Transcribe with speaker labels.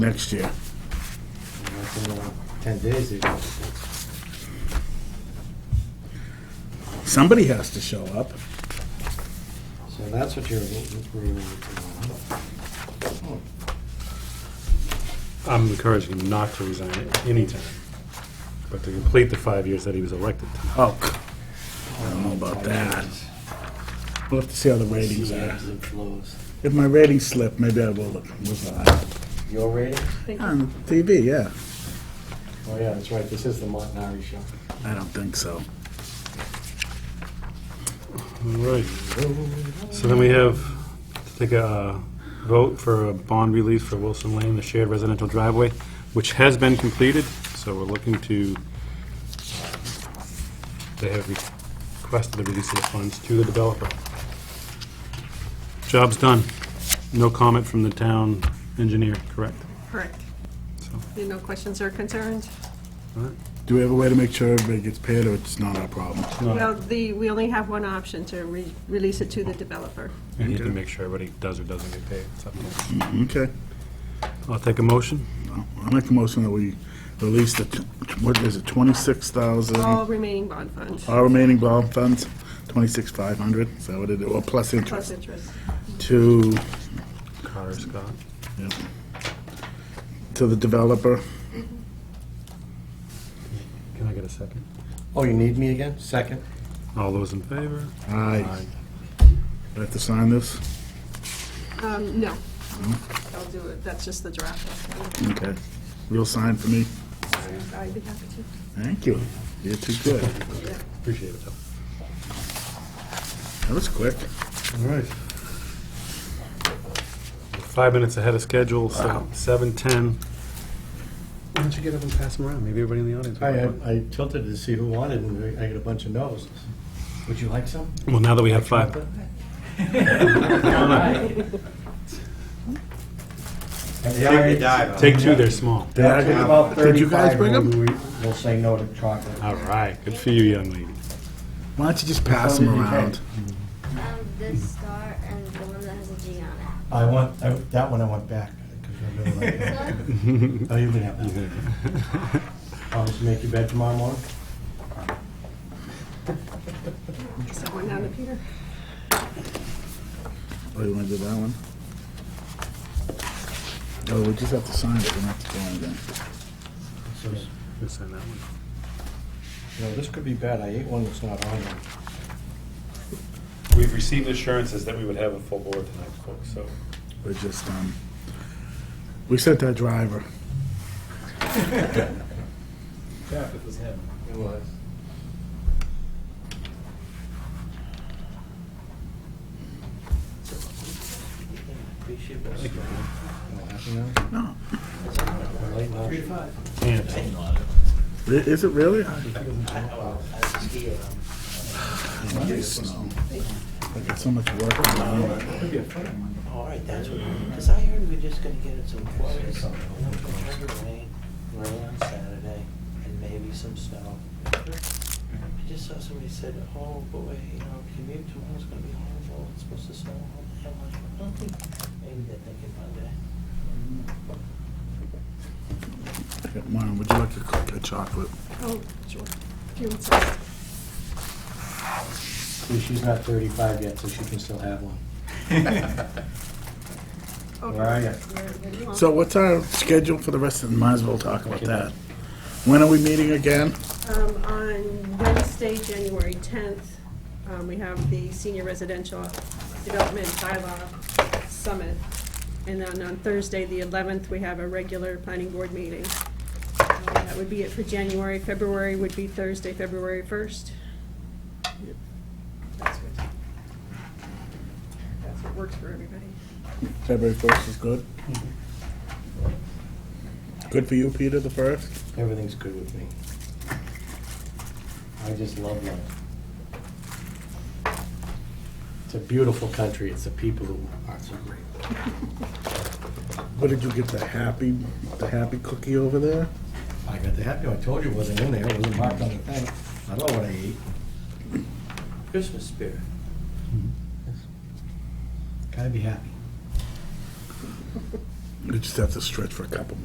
Speaker 1: next year.
Speaker 2: That's in, uh, Ten days even.
Speaker 1: Somebody has to show up.
Speaker 2: So that's what you're, we're, uh,
Speaker 3: I'm encouraging him not to resign at any time, but to complete the five years that he was elected.
Speaker 1: Oh, I don't know about that. We'll have to see how the ratings
Speaker 2: see
Speaker 1: are.
Speaker 2: ebbs and flows.
Speaker 1: If my ratings slip, maybe I will resign.
Speaker 2: Your rating?
Speaker 1: On TV, yeah.
Speaker 2: Oh, yeah, that's right, this is the Montanari show.
Speaker 1: I don't think so.
Speaker 3: All right. So then we have to take a uh, vote for a bond release for Wilson Lane, the shared residential driveway, which has been completed, so we're looking to, uh, they have requested the release of the funds to the developer. Job's done. No comment from the town engineer, correct?
Speaker 4: Correct.
Speaker 3: So,
Speaker 4: Any no questions or concerns?
Speaker 3: all right.
Speaker 1: Do we have a way to make sure everybody gets paid, or it's not our problem?
Speaker 3: No.
Speaker 4: Well, the, we only have one option to re- release it to the developer.
Speaker 3: And you can make sure everybody does or doesn't get paid. It's up to you.
Speaker 1: Okay.
Speaker 3: I'll take a motion.
Speaker 1: I make a motion that we release the, t- what is it, 26,000?
Speaker 4: All remaining bond funds,
Speaker 1: Our remaining bond funds, 26,500, is that what it is, or plus
Speaker 4: plus
Speaker 1: interest,
Speaker 4: interest.
Speaker 1: to,
Speaker 3: Carter, Scott.
Speaker 1: yeah, to the developer.
Speaker 3: Can I get a second?
Speaker 2: Oh, you need me again? Second?
Speaker 3: All those in favor?
Speaker 1: Aye. Do I have to sign this?
Speaker 4: Um, no. I'll do it, that's just the draft.
Speaker 1: Okay. You'll sign for me?
Speaker 4: I'd be happy to.
Speaker 1: Thank you. You're too good.
Speaker 3: Appreciate it, though.
Speaker 1: That was quick.
Speaker 3: All right. Five minutes ahead of schedule, so seven ten. Why don't you get up and pass them around? Maybe everybody in the audience.
Speaker 2: I,
Speaker 3: will want one.
Speaker 2: I tilted to see who wanted, and I got a bunch of no's. Would you like some?
Speaker 3: Well, now that we have five.
Speaker 2: They already died.
Speaker 3: Take two, they're small.
Speaker 2: They'll take about
Speaker 1: Did you guys
Speaker 2: 35
Speaker 1: bring 'em?
Speaker 2: when we- We'll say no to chocolate.
Speaker 3: All right, good for you, young lady.
Speaker 1: Why don't you just pass
Speaker 2: How
Speaker 1: them
Speaker 2: many did you
Speaker 1: around?
Speaker 5: Um, this star and the one that has a G on it.
Speaker 2: I want, I- that one I want back, 'cause I really like that. Oh, you can have that. Promise to make your bed tomorrow morning?
Speaker 4: Someone down to Peter.
Speaker 1: Oh, you want to do that one? Oh, we just have to sign it, we don't have to do anything.
Speaker 2: So,
Speaker 3: We'll send that one.
Speaker 2: You know, this could be bad, I ate one that's not on there.
Speaker 3: We've received assurances that we would have a full board tonight, folks, so.
Speaker 1: We're just, um, we sent that driver.
Speaker 2: It was.
Speaker 1: No.
Speaker 2: Three to five.
Speaker 3: And
Speaker 1: I- Is it really? Nice snow. I got so much work. to do.
Speaker 6: All right, that's what, because I heard we're just gonna get it some flurries, and then it's gonna have rain, rain on Saturday, and maybe some snow. I just saw somebody said, oh boy, you know, commute tomorrow's gonna be horrible, it's supposed to snow all day. I'm like, "I don't think-" Maybe they're thinking Monday.
Speaker 1: Yeah, Mom, would you like a cookie or chocolate?
Speaker 4: Oh, sure. If you insist.
Speaker 2: See, She's not thirty-five yet, so she can still have one. Where are you?
Speaker 1: So what's our schedule for the rest of, the might as well talk about that. When are we meeting again?
Speaker 4: Um, on Wednesday, January tenth, um, we have the Senior Residential Development Bylaw Summit. And then on Thursday, the eleventh, we have a regular planning board meeting. Um, That would be it for January. February would be Thursday, February first. That's good. That's what works for everybody.
Speaker 1: February first is good? Good for you, Peter, the first?
Speaker 2: Everything's good with me. I just love life. It's a beautiful country, it's the people who are so great.
Speaker 1: What did you get, the happy, the happy cookie over there?
Speaker 2: I got the happy, I told you it wasn't in there, it wasn't marked on the thing. I know what I ate.
Speaker 6: Christmas spirit.
Speaker 2: Gotta be happy.
Speaker 1: We just have to stretch for a couple